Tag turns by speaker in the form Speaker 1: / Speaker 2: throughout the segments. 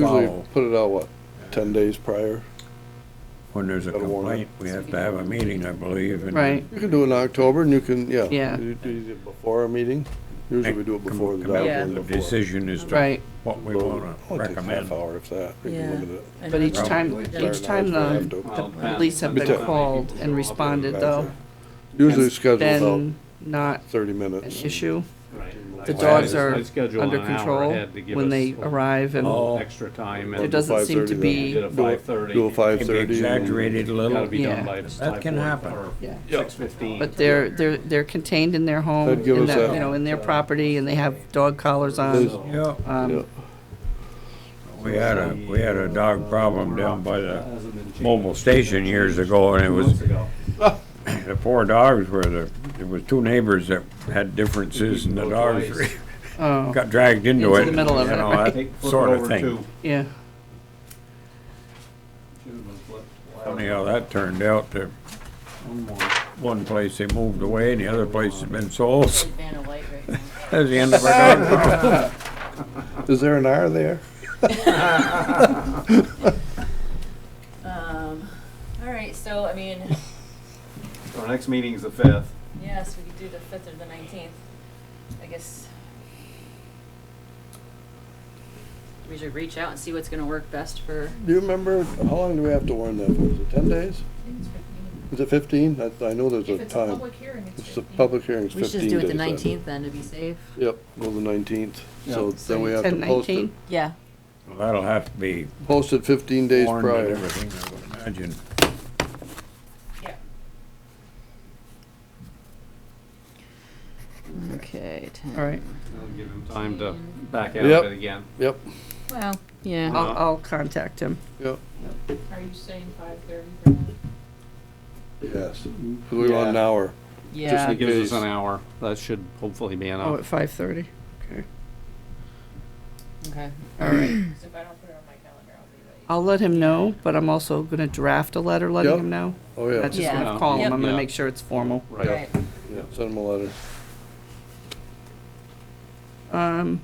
Speaker 1: Usually
Speaker 2: follow.
Speaker 1: put it out, what, ten days prior?
Speaker 2: When there's a
Speaker 1: Gotta warn it.
Speaker 2: complaint, we have to have a meeting, I believe. and
Speaker 3: Right.
Speaker 1: You can do it in October and you can, yeah.
Speaker 3: Yeah.
Speaker 1: You do it before a meeting. Usually we do it
Speaker 2: come-
Speaker 1: before the
Speaker 2: come out
Speaker 1: dog.
Speaker 3: Yeah.
Speaker 2: with
Speaker 1: one
Speaker 2: a
Speaker 1: before.
Speaker 2: Decision as to
Speaker 3: Right,
Speaker 2: what we
Speaker 1: Well,
Speaker 2: wanna
Speaker 1: it takes Half
Speaker 2: recommend.
Speaker 1: hour if that. We can
Speaker 4: Yeah.
Speaker 1: limit it.
Speaker 4: And
Speaker 3: but each
Speaker 4: that's-
Speaker 3: time, each time the, the police have been called and responded though,
Speaker 1: Usually
Speaker 3: it's
Speaker 1: schedule about
Speaker 3: then not
Speaker 1: thirty
Speaker 3: an
Speaker 1: minutes.
Speaker 3: issue. The
Speaker 2: Well,
Speaker 3: dogs
Speaker 2: I-
Speaker 3: are
Speaker 5: I schedule
Speaker 3: under
Speaker 5: an hour
Speaker 3: control
Speaker 5: ahead to give
Speaker 3: when
Speaker 5: us
Speaker 3: they
Speaker 5: a-
Speaker 3: arrive and
Speaker 2: Oh.
Speaker 5: Extra time
Speaker 3: there
Speaker 5: and
Speaker 3: doesn't seem
Speaker 1: 5:30 then.
Speaker 3: to
Speaker 5: did
Speaker 3: be,
Speaker 5: a
Speaker 1: Do it-
Speaker 5: five thirty.
Speaker 1: Do a five
Speaker 2: Can be
Speaker 1: thirty.
Speaker 2: exaggerated a
Speaker 5: Gotta
Speaker 2: little.
Speaker 5: be
Speaker 3: Yeah.
Speaker 5: done by five.
Speaker 2: That can happen.
Speaker 3: yeah.
Speaker 5: Six fifteen.
Speaker 3: But they're, they're, they're contained in their home,
Speaker 1: That'd give
Speaker 3: in
Speaker 1: us
Speaker 3: their-
Speaker 1: that-
Speaker 3: you know, in their property and they have dog collars on.
Speaker 2: Yeah,
Speaker 1: Yeah.
Speaker 3: Um,
Speaker 2: we had a, we had a dog problem down by the mobile station years ago and it was, the poor dogs were the, there was two neighbors that had differences and the dogs
Speaker 3: oh,
Speaker 2: got dragged into
Speaker 3: Into
Speaker 2: it.
Speaker 3: the middle of
Speaker 2: you
Speaker 3: it,
Speaker 2: know,
Speaker 3: right.
Speaker 2: that Sort of thing.
Speaker 3: yeah,
Speaker 2: Funny how that turned out. The one place they moved away and the other place has been sold.
Speaker 4: Big Vanna White right now.
Speaker 2: That's the end of our dog problem.
Speaker 1: Is there an hour there?
Speaker 4: Um, all right, so, I mean,
Speaker 5: Our next meeting is the fifth.
Speaker 4: yes, we could do the fifth or the nineteenth, I guess. We should reach out and see what's gonna work best for.
Speaker 1: Do you remember, how long do we have to warn them? Is it ten days? Is it fifteen? I, I know there's a time.
Speaker 4: hearing,
Speaker 1: It's a public hearing, it's
Speaker 4: We
Speaker 1: fifteen
Speaker 4: should
Speaker 1: days.
Speaker 4: just do it the
Speaker 1: I think.
Speaker 4: nineteenth then to be safe.
Speaker 1: Yep, go the nineteenth. So
Speaker 4: So
Speaker 1: then we have to
Speaker 3: ten
Speaker 1: post it,
Speaker 3: nineteen,
Speaker 4: Yeah.
Speaker 2: Well, That'll have to be
Speaker 1: post it fifteen days
Speaker 2: warned and
Speaker 1: prior.
Speaker 2: everything, I would imagine.
Speaker 4: Okay.
Speaker 3: all right.
Speaker 5: That'll give him time to back out
Speaker 1: Yep.
Speaker 5: of it again.
Speaker 1: Yep,
Speaker 4: Well, yeah.
Speaker 5: Uh-huh.
Speaker 3: I'll, I'll contact him.
Speaker 1: yep,
Speaker 6: Are you saying five thirty for that?
Speaker 1: yes. 'Cause we want an
Speaker 5: Yeah.
Speaker 1: hour.
Speaker 5: Just
Speaker 4: Yeah.
Speaker 5: to give us
Speaker 1: Please.
Speaker 5: an hour. That should hopefully be
Speaker 3: Oh,
Speaker 5: enough.
Speaker 3: at five thirty, okay,
Speaker 4: Okay.
Speaker 3: all right.
Speaker 6: Because if I don't put it on my calendar, I'll be late.
Speaker 3: I'll let him know, but I'm also gonna draft a letter letting
Speaker 1: Yep.
Speaker 3: him know.
Speaker 1: Oh,
Speaker 3: I'm
Speaker 1: yeah.
Speaker 3: Not just
Speaker 4: Yeah.
Speaker 3: gonna call him, I'm gonna
Speaker 5: Yeah.
Speaker 3: make sure it's formal.
Speaker 5: Right.
Speaker 1: Yeah, Send them a letter.
Speaker 3: um,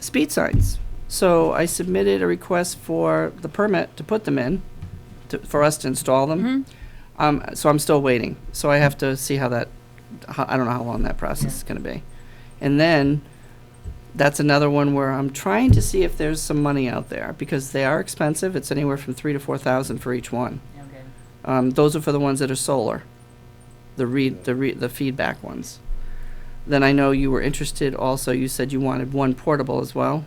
Speaker 3: speed signs. So I submitted a request for the permit to put them in, to, for us to install
Speaker 4: Mm-hmm.
Speaker 3: them. Um, so I'm still waiting. So I have to see how that, how, I don't know how long that process is gonna be. And then, that's another one where I'm trying to see if there's some money out there, because they are expensive. It's anywhere from three to four thousand for each one.
Speaker 4: Okay.
Speaker 3: Um, those are for the ones that are solar, the read, the re the feedback ones. Then I know you were interested also, you said you wanted one portable as well?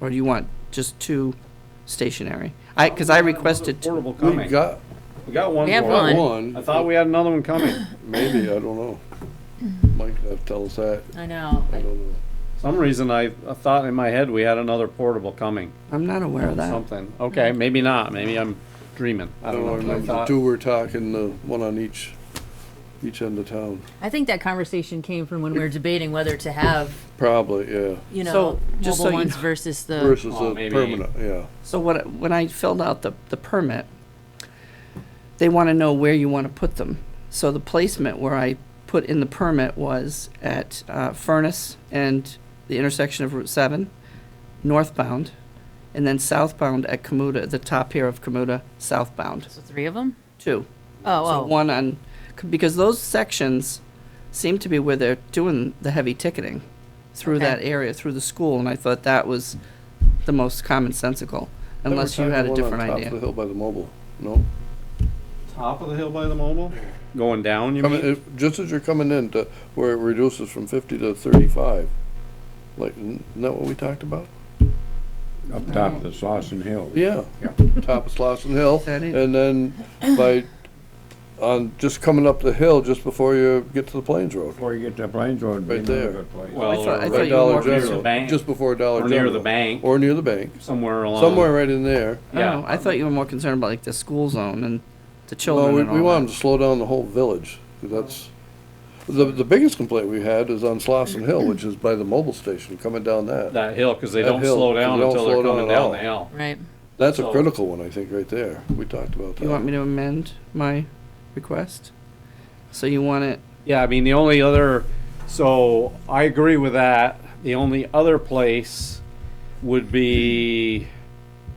Speaker 3: Or do you want just two stationary? I, cause I requested, two.
Speaker 5: Portable
Speaker 1: We
Speaker 5: coming.
Speaker 1: got
Speaker 5: We got one.
Speaker 4: We have
Speaker 5: more.
Speaker 4: one.
Speaker 1: one.
Speaker 5: I thought we had another one coming.
Speaker 1: Maybe, I don't know.
Speaker 3: Mm-hmm.
Speaker 1: Mike, have to tell us that.
Speaker 4: I know.
Speaker 1: I don't know.
Speaker 5: Some reason I, I thought in my head we had another portable coming.
Speaker 3: I'm not aware of that.
Speaker 5: Something. Okay, maybe not. Maybe I'm dreaming. I
Speaker 1: I
Speaker 5: don't know. I
Speaker 1: remember the
Speaker 5: thought-
Speaker 1: two were talking, the one on each, each end of town.
Speaker 4: I think that conversation came from when we were debating whether to have,
Speaker 1: Probably, yeah.
Speaker 4: you know,
Speaker 3: So, just so
Speaker 4: mobile
Speaker 3: you
Speaker 4: ones
Speaker 3: know-
Speaker 4: versus the.
Speaker 1: Versus
Speaker 5: Oh,
Speaker 1: the
Speaker 5: maybe.
Speaker 1: permanent, yeah.
Speaker 3: So what, when I filled out the, the permit, they wanna know where you wanna put them. So the placement where I put in the permit was at, uh, Furnace and the intersection of Route seven, northbound, and then southbound at Kamuta, the top here of Kamuta, southbound,
Speaker 4: So three of them?
Speaker 3: too.
Speaker 4: Oh,
Speaker 3: So
Speaker 4: oh.
Speaker 3: one on, c- because those sections seem to be where they're doing the heavy ticketing through
Speaker 4: Okay.
Speaker 3: that area, through the school, and I thought that was the most commonsensical,
Speaker 1: They were
Speaker 3: unless you
Speaker 1: talking
Speaker 3: had
Speaker 1: one
Speaker 3: a
Speaker 1: on
Speaker 3: different
Speaker 1: top of The
Speaker 3: idea.
Speaker 1: hill by the mobile, no?
Speaker 5: Top of the hill by the mobile? Going down, you
Speaker 1: Coming,
Speaker 5: mean?
Speaker 1: if- just as you're coming in to, where it reduces from fifty to thirty-five. Like, isn't that what we talked about?
Speaker 2: Up top of the Slauson Hill.
Speaker 1: Yeah. Top of Slauson Hill,
Speaker 3: That is-
Speaker 1: and then by, on, just coming up the hill just before you get to the Plains Road.
Speaker 2: Before you get to Plains Road, be
Speaker 1: Right
Speaker 2: another
Speaker 1: there.
Speaker 2: good place.
Speaker 5: Well,
Speaker 3: I thought, I
Speaker 5: or
Speaker 3: thought
Speaker 1: By
Speaker 3: you were
Speaker 1: Dollar
Speaker 3: more.
Speaker 5: Near the
Speaker 1: General,
Speaker 5: bank.
Speaker 1: just before Dollar
Speaker 5: Or
Speaker 1: General.
Speaker 5: near the bank,
Speaker 1: Or near the bank,
Speaker 5: somewhere along.
Speaker 1: somewhere right in there.
Speaker 5: Yeah.
Speaker 3: Oh, I thought you were more concerned about like the school zone and the
Speaker 1: Well,
Speaker 3: children
Speaker 1: we,
Speaker 3: and
Speaker 1: we
Speaker 3: all
Speaker 1: want them to
Speaker 3: that.
Speaker 1: slow down the whole village, 'cause that's, the, the biggest complaint we had is on Slauson Hill, which is by the mobile station, coming down that.
Speaker 5: That hill, because they
Speaker 1: That
Speaker 5: don't
Speaker 1: hill,
Speaker 5: slow
Speaker 1: 'cause they
Speaker 5: down
Speaker 1: don't
Speaker 5: until they're
Speaker 1: slow down
Speaker 5: coming
Speaker 1: at all.
Speaker 5: down the hill.
Speaker 4: Right.
Speaker 1: That's a
Speaker 5: So-
Speaker 1: critical one, I think, right there. We talked about
Speaker 3: You want
Speaker 1: that.
Speaker 3: me to amend my request? So you want it,
Speaker 5: Yeah, I mean, the only other, so I agree with that. The only other place would be